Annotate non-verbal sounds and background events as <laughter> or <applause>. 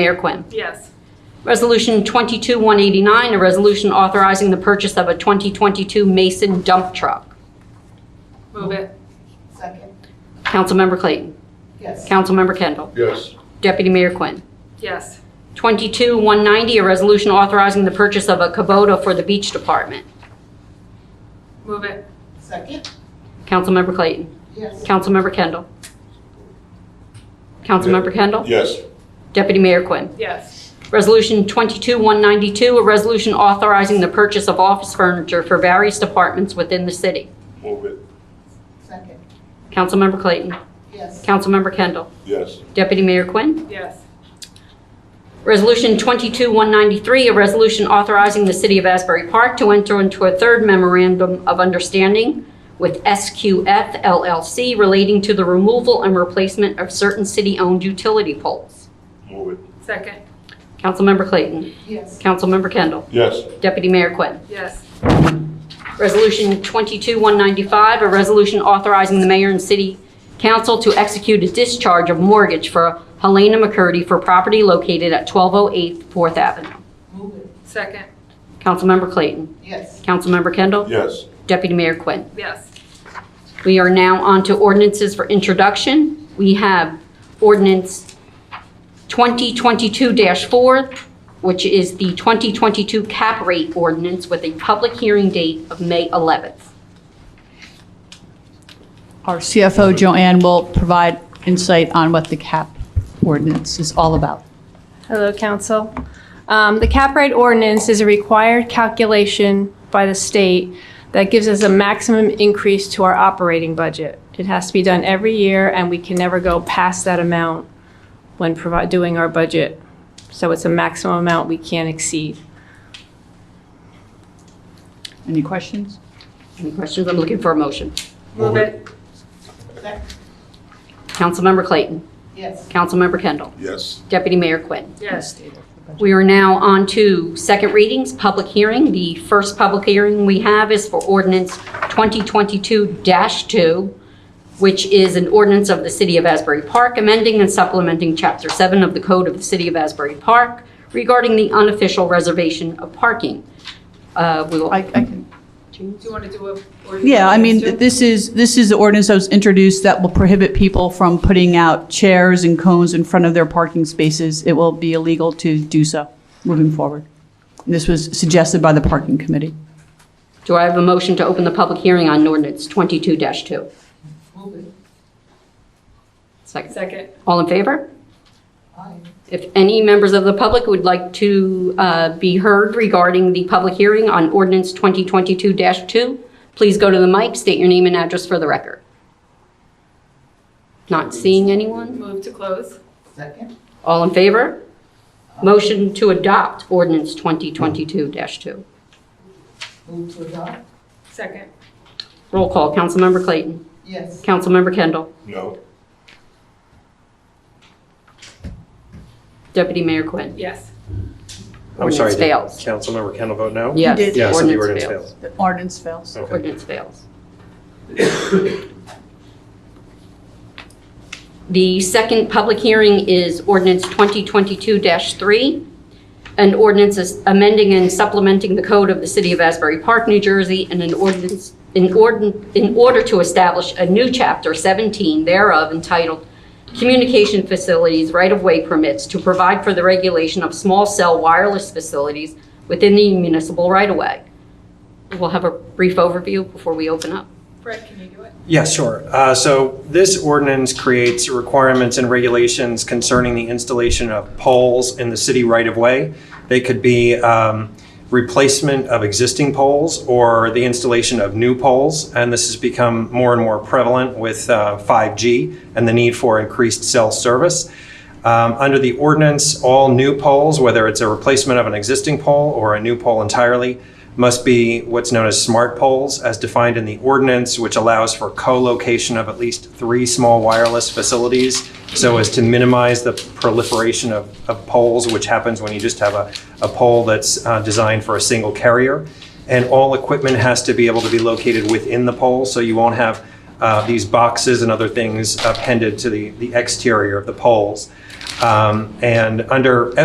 Mayor Quinn. Yes. Resolution 22-189, a resolution authorizing the purchase of a 2022 Mason dump truck. Move it. Second. Councilmember Clayton. Yes. Councilmember Kendall. yes, Deputy Mayor Quinn. Yes. 22-190, a resolution authorizing the purchase of a Kubota for the Beach Department. Move it. Second. Councilmember Clayton. Yes. Councilmember Kendall. Councilmember Kendall. yes, Deputy Mayor Quinn. Yes. Resolution 22-192, a resolution authorizing the purchase of office furniture for various departments within the city. move it, Second. Councilmember Clayton. Yes. Councilmember Kendall. yes, Deputy Mayor Quinn. Yes. Resolution 22-193, a resolution authorizing the City of Asbury Park to enter into a third memorandum of understanding with SQF LLC relating to the removal and replacement of certain city-owned utility poles. move it, Second. Councilmember Clayton. Yes. Councilmember Kendall. yes, Deputy Mayor Quinn. Yes. Resolution 22-195, a resolution authorizing the mayor and city council to execute a discharge of mortgage for Helena McCurdy for property located at 1208 Fourth Avenue. Move it. Second. Councilmember Clayton. Yes. Councilmember Kendall. yes, Deputy Mayor Quinn. Yes. We are now on to ordinances for introduction. We have ordinance 2022-4, which is the 2022 cap rate ordinance with a public hearing date of May 11th. Our CFO, Joanne, will provide insight on what the cap ordinance is all about. Hello, Council. Um, The cap rate ordinance is a required calculation by the state that gives us a maximum increase to our operating budget. It has to be done every year, and we can never go past that amount when provi- doing our budget. So it's a maximum amount we can't exceed. Any questions? Any questions? I'm looking for a motion. Move it. Second. Councilmember Clayton. Yes. Councilmember Kendall. yes, Deputy Mayor Quinn. Yes. We are now on to second readings, public hearing. The first public hearing we have is for ordinance 2022-2, which is an ordinance of the City of Asbury Park amending and supplementing Chapter 7 of the Code of the City of Asbury Park regarding the unofficial reservation of parking. Uh, We will, I I can, Do you want to do a? or do you yeah, I want mean, us to? this is, this is the ordinance that was introduced that will prohibit people from putting out chairs and cones in front of their parking spaces. It will be illegal to do so moving forward. This was suggested by the Parking Committee. do I have a motion to open the public hearing on ordinance 22-2? Move it. Second. Second. All in favor? Aye. If any members of the public would like to uh, be heard regarding the public hearing on ordinance 2022-2, please go to the mic, state your name and address for the record. Not seeing anyone? Move to close. Second. All in favor? Motion to adopt ordinance 2022-2. Move to adopt. Second. Roll call, Councilmember Clayton. Yes. Councilmember Kendall. no, Deputy Mayor Quinn. Yes. I'm sorry, Ordinance did fails. Councilmember Kendall vote no? Yes. did. Yes, and the ordinance fails. The ordinance fails. Okay. Ordinance fails. <coughs> The second public hearing is ordinance 2022-3, an ordinance is amending and supplementing the code of the City of Asbury Park, New Jersey, and an ordinance, in ordin- in order to establish a new Chapter 17 thereof entitled Communication Facilities Right-of-Way Permits to provide for the regulation of small cell wireless facilities within the municipal right-of-way. We'll have a brief overview before we open up. Fred, can you do it? Yeah, sure. Uh, So this ordinance creates requirements and regulations concerning the installation of poles in the city right-of-way. They could be um, replacement of existing poles or the installation of new poles. And this has become more and more prevalent with uh, 5G and the need for increased cell service. Um, Under the ordinance, all new poles, whether it's a replacement of an existing pole or a new pole entirely, must be what's known as smart poles, as defined in the ordinance, which allows for co-location of at least three small wireless facilities, so as to minimize the proliferation of of poles, which happens when you just have a a pole that's uh, designed for a single carrier. And all equipment has to be able to be located within the pole, so you won't have uh, these boxes and other things appended to the the exterior of the poles. Um, And under